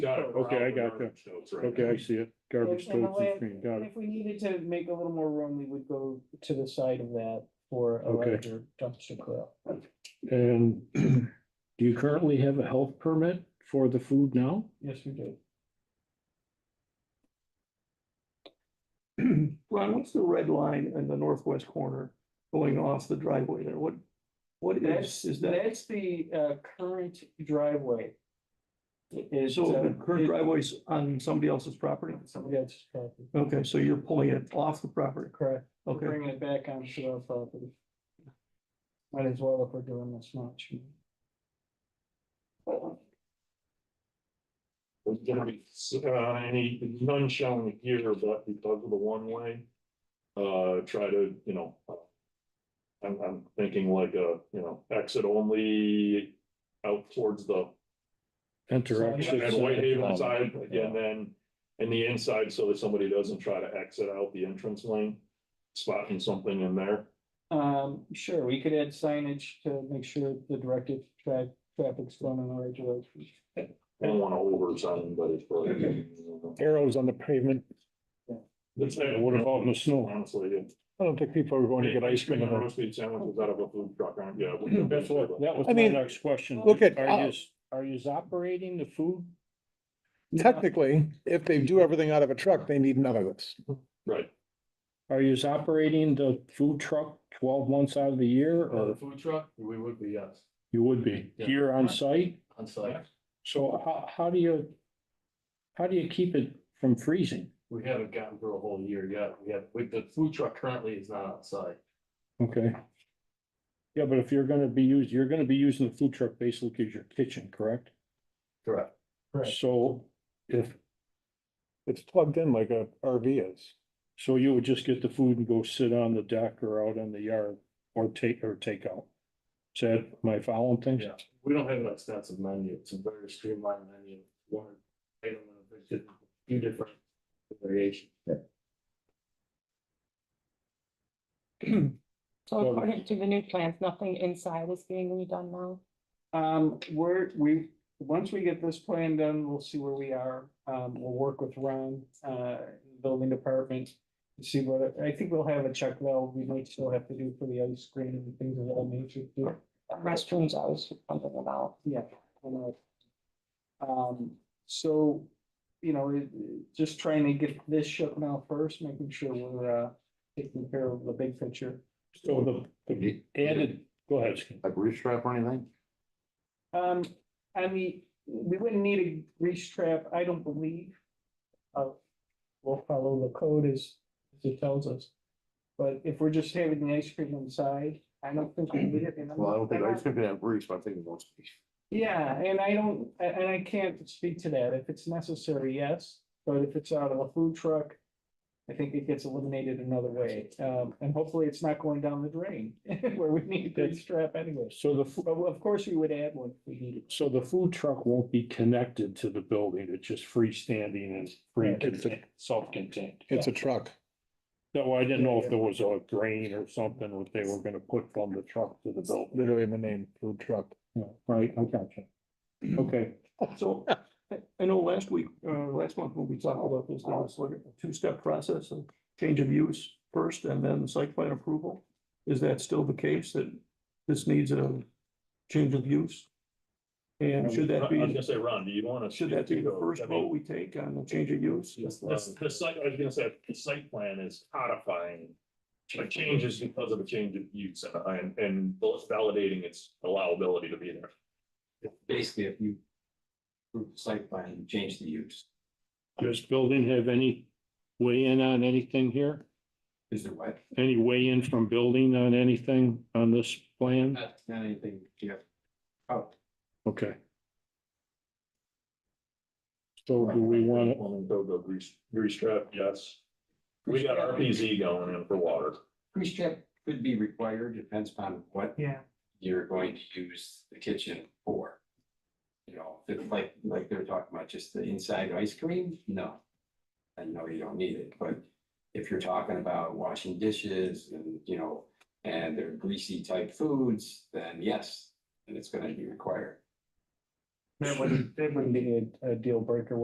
Got it. Okay, I got you. Okay, I you. see it. Garbage And the totes and way- screen. Got it. If we needed to make a little more room, we would go to the side of that for a Okay. larger dumpster pile. And do you currently have a health permit for the food now? Yes, we do. Ron, what's the red line in the northwest corner going off the driveway there? What, what is, That's, is that? that's the uh current driveway. It is, So uh, the current it- driveway's on somebody else's property? Somebody else's property, Okay, so you're pulling it off the property, correct. We're okay. Bringing it back onto our property. Might as well if we're doing this much. There's gonna be, uh, any, none shown here, but because of the one way, uh, try to, you know. I'm, I'm thinking like a, you know, exit only out towards the, Enter. exit and side. Whitehaven side, and then. In the inside, so that somebody doesn't try to exit out the entrance lane, spotting something in there. Um, sure, we could add signage to make sure the directed tra- traffic's going in the right direction. I don't wanna oversign, but it's probably. Arrows on the pavement. That's- What about in the snow? Honestly, yeah. I don't think people are going to get ice cream. in and there. roast beef sandwiches out of a food truck, aren't you? Yeah. That's what, that was I my mean, next question. look at- Are you, are you operating the food? Technically, if they do everything out of a truck, they need none of this. Right. Are you operating the food truck twelve months out of the year Uh, the or food truck, we would be, yes, you would be Yeah. here on site? on site. So how, how do you, how do you keep it from freezing? We haven't gotten through a whole year yet. We have, with the food truck currently is not outside. Okay. Yeah, but if you're gonna be used, you're gonna be using the food truck basically as your kitchen, correct? Correct. Correct. So if, It's plugged in like a RV is. so you would just get the food and go sit on the deck or out in the yard or take, or take out. Is that my following things? Yeah, we don't have an extensive menu. It's a very streamlined menu. One item, of it, just a few different variations. So So- according to the new plans, nothing inside is being redone now. Um, we're, we, once we get this plan done, we'll see where we are. Um, we'll work with Ron, uh, building department. to See what, I think we'll have a check though, we might still have to do for the ice cream and things of that nature. too. Restrooms I was wondering about. Yeah. I know. Um, so, you know, it- it- just trying to get this shut now first, making sure we're, uh, taking care of the big picture. So the added, go ahead. Steve. Like roof strap or anything? Um, I mean, we wouldn't need a grease trap, I don't believe. Uh, we'll follow the code as, as it tells us. But if we're just having the ice cream inside, I don't think we need it. and I'm not- I'm not- think they have roofs, I think it wants to be. Yeah, and I don't, a- and I can't speak to that. If it's necessary, yes, but if it's out of a food truck. I think it gets eliminated another way, um, and hopefully it's not going down the drain where we need a grease trap anyway. So the, fu- But of course, we would add one if we needed. so the food truck won't be connected to the building. It's just freestanding and free, Right. contain- self-contained. It's a truck. No, I didn't know if there was a grain or something that they were gonna put from the truck to the building. Literally in the name, food truck. Yeah, Right, I gotcha. Okay, So I- I know last week, uh, last month when we talked about this, there was like a two-step process of change of use first and then site plan approval. Is that still the case that this needs a change of use? And should that I was be, gonna say, Ron, do you wanna? should that be the first I mean, vote we take on the change of use? This, this- the site, I was gonna say, the site plan is codifying. A change is because of a change of use and- and, and both validating its allowability to be there. basically if you approve the site plan and change the use, does building have any weigh in on anything here? is there what? Any weigh in from building on anything on this plan? Not not anything Oh. you have Okay. So do we wanna, Plumbing code, the grease, grease trap, yes. We got RPZ going in for water. Grease trap could be required, depends upon what. Yeah. You're going to use the kitchen for. You know, if it's like, like they're talking about just the inside ice cream, no. I know you don't need it, but if you're talking about washing dishes and, you know, and they're greasy type foods, then yes, and it's gonna be required. That wouldn't, that wouldn't be a, a deal breaker,